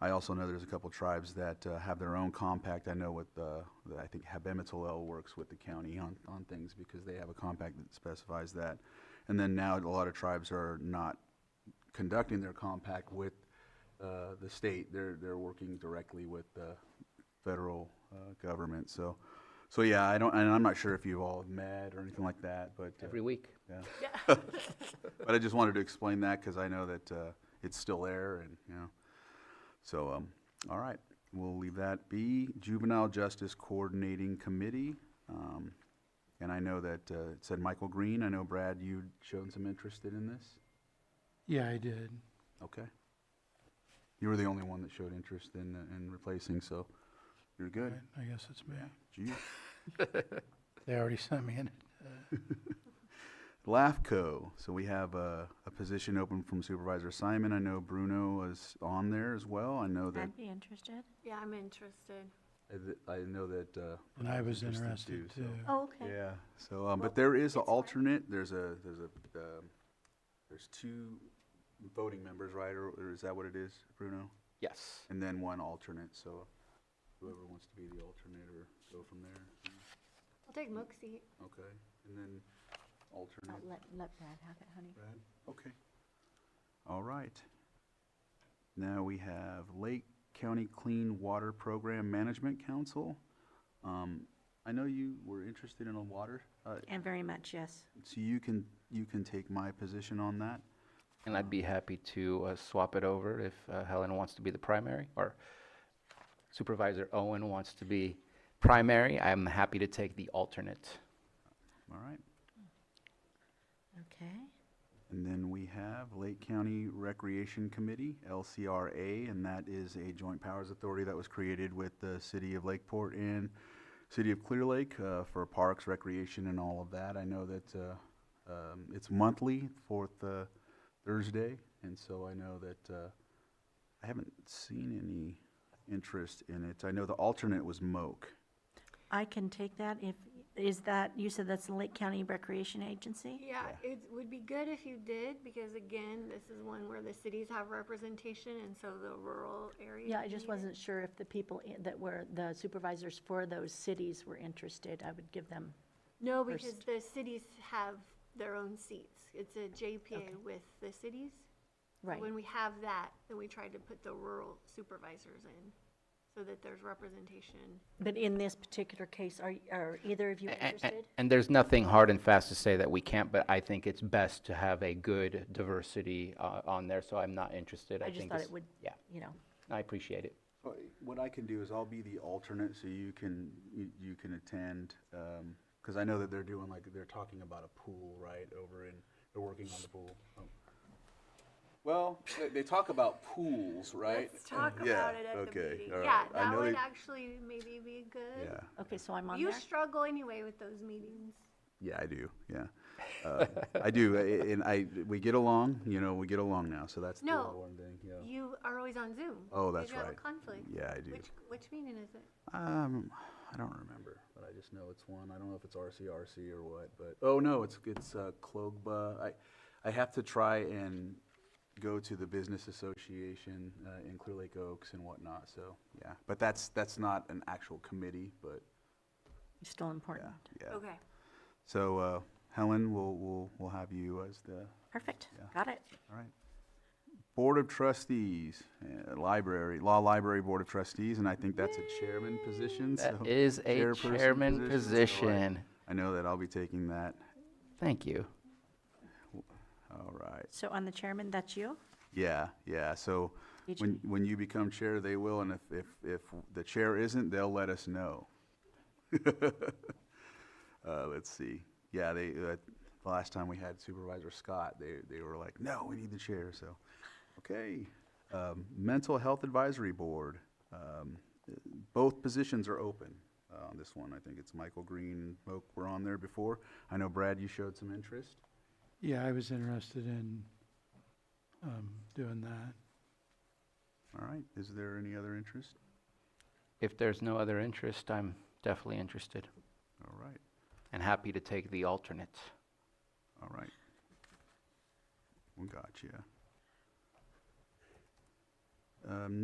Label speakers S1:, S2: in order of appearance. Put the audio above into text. S1: I also know there's a couple tribes that uh, have their own compact. I know with, uh, that I think Habemetalel works with the county on, on things because they have a compact that specifies that. And then now a lot of tribes are not conducting their compact with uh, the state. They're, they're working directly with the federal uh, government. So, so yeah, I don't, and I'm not sure if you all have met or anything like that, but. uh,
S2: every week.
S1: yeah. But I just wanted to explain that because I know that uh, it's still there and, you know. So, um, all right, we'll leave that be. Juvenile Justice Coordinating Committee. um, And I know that uh, it said Michael Green. I know, Brad, you'd shown some interest in this.
S3: Yeah, I did.
S1: Okay. You were the only one that showed interest in, uh, in replacing, so you're good.
S3: I- I guess it's me.
S1: Gee.
S3: They already sent me in.
S1: LAFCO, so we have a, a position open from Supervisor Simon. I know Bruno is on there as well. I know that
S4: I'd be interested.
S5: Yeah, I'm interested.
S1: I th- I know that, uh.
S3: And I was interested
S1: so-
S3: too.
S4: Oh, okay.
S1: Yeah, so, um,
S5: Well,
S1: but there is an
S5: it's fine.
S1: alternate, there's a, there's a, um, there's two voting members, right, or, or is that what it is, Bruno?
S2: Yes.
S1: And then one alternate, so whoever wants to be the alternate or go from there,
S5: I'll take Mook's seat.
S1: okay, and then alternate,
S4: Let, let Brad have it, honey.
S1: Brad, okay. All right. Now we have Lake County Clean Water Program Management Council. Um, I know you were interested in a water, uh,
S4: And very much, yes.
S1: So you can, you can take my position on that?
S2: And I'd be happy to uh, swap it over if uh, Helen wants to be the primary or Supervisor Owen wants to be primary. I'm happy to take the alternate.
S1: All right.
S4: Okay.
S1: And then we have Lake County Recreation Committee, LCRA, and that is a joint powers authority that was created with the city of Lakeport and city of Clear Lake uh, for parks, recreation, and all of that. I know that uh, um, it's monthly, fourth uh, Thursday, and so I know that uh, I haven't seen any interest in it. I know the alternate was Moak.
S4: I can take that if, is that, you said that's the Lake County Recreation Agency?
S5: Yeah, it would be good if you did, because again, this is one where the cities have representation, and so the rural area.
S4: Yeah, I just
S5: need it.
S4: wasn't sure if the people i- that were, the supervisors for those cities were interested. I would give them,
S5: No, because
S4: first.
S5: the cities have their own seats. It's a JPA with the cities. So
S4: right.
S5: When we have that, then we try to put the rural supervisors in, so that there's representation.
S4: But in this particular case, are, are either of you
S2: A- a- a-
S4: interested?
S2: And there's nothing hard and fast to say that we can't, but I think it's best to have a good diversity uh, on there, so I'm not interested.
S4: I just
S2: think
S4: thought
S2: it's-
S4: it would,
S2: Yeah,
S4: you know,
S2: I appreciate it.
S1: Well, What I can do is I'll be the alternate, so you can, you, you can attend, um 'cause cause I know that they're doing like, they're talking about a pool, right, over in, they're working on the pool. Oh. Well, they, they talk about pools, right?
S5: Let's talk
S1: Uh, Yeah,
S5: about it at the
S1: okay,
S5: meeting.
S1: all
S5: Yeah,
S1: right. I
S5: that
S1: know
S5: would
S1: they-
S5: actually maybe be good.
S1: Yeah,
S4: okay, so I'm on
S5: You
S4: there?
S5: struggle anyway with those meetings.
S1: yeah, I do, yeah. Uh, I do, I- and I, we get along, you know, we get along now, so that's the
S5: No.
S1: one thing, yeah.
S5: You are always on Zoom.
S1: Oh,
S5: Did
S1: that's
S5: you have a
S1: right.
S5: conflict?
S1: Yeah, I do.
S5: Which, which meeting is it?
S1: Um, I don't remember, but I just know it's one. I don't know if it's RCRC or what, but, oh, no, it's, it's, uh, Clogba. I, I have to try and go to the Business Association, uh, in Clear Lake Oaks and whatnot, so, yeah. But that's, that's not an actual committee, but,
S4: Still important.
S1: yeah.
S5: Okay.
S1: So, uh, Helen, we'll, we'll, we'll have you as the,
S4: Perfect,
S1: Yeah.
S4: got it.
S1: all right. Board of Trustees, uh, Library, Law Library Board of Trustees, and I think that's a chairman position, so.
S2: That is a
S1: chairperson
S2: chairman
S1: so I-
S2: position.
S1: I know that I'll be taking that.
S2: Thank you.
S1: All right.
S4: So on the chairman, that's you?
S1: Yeah, yeah. So
S4: Did
S1: when, when you become chair, they will, and if, if, if the chair isn't, they'll let us know. Uh, let's see. Yeah, they, uh, the last time we had Supervisor Scott, they, they were like, no, we need the chair, so, okay. Um, Mental Health Advisory Board, um, uh, both positions are open. Uh, on this one, I think it's Michael Green and Moak were on there before. I know Brad, you showed some interest.
S3: Yeah, I was interested in um, doing that.
S1: All right, is there any other interest?
S2: If there's no other interest, I'm definitely interested
S1: All right,
S2: and happy to take the alternate.
S1: all right. We got you. Um,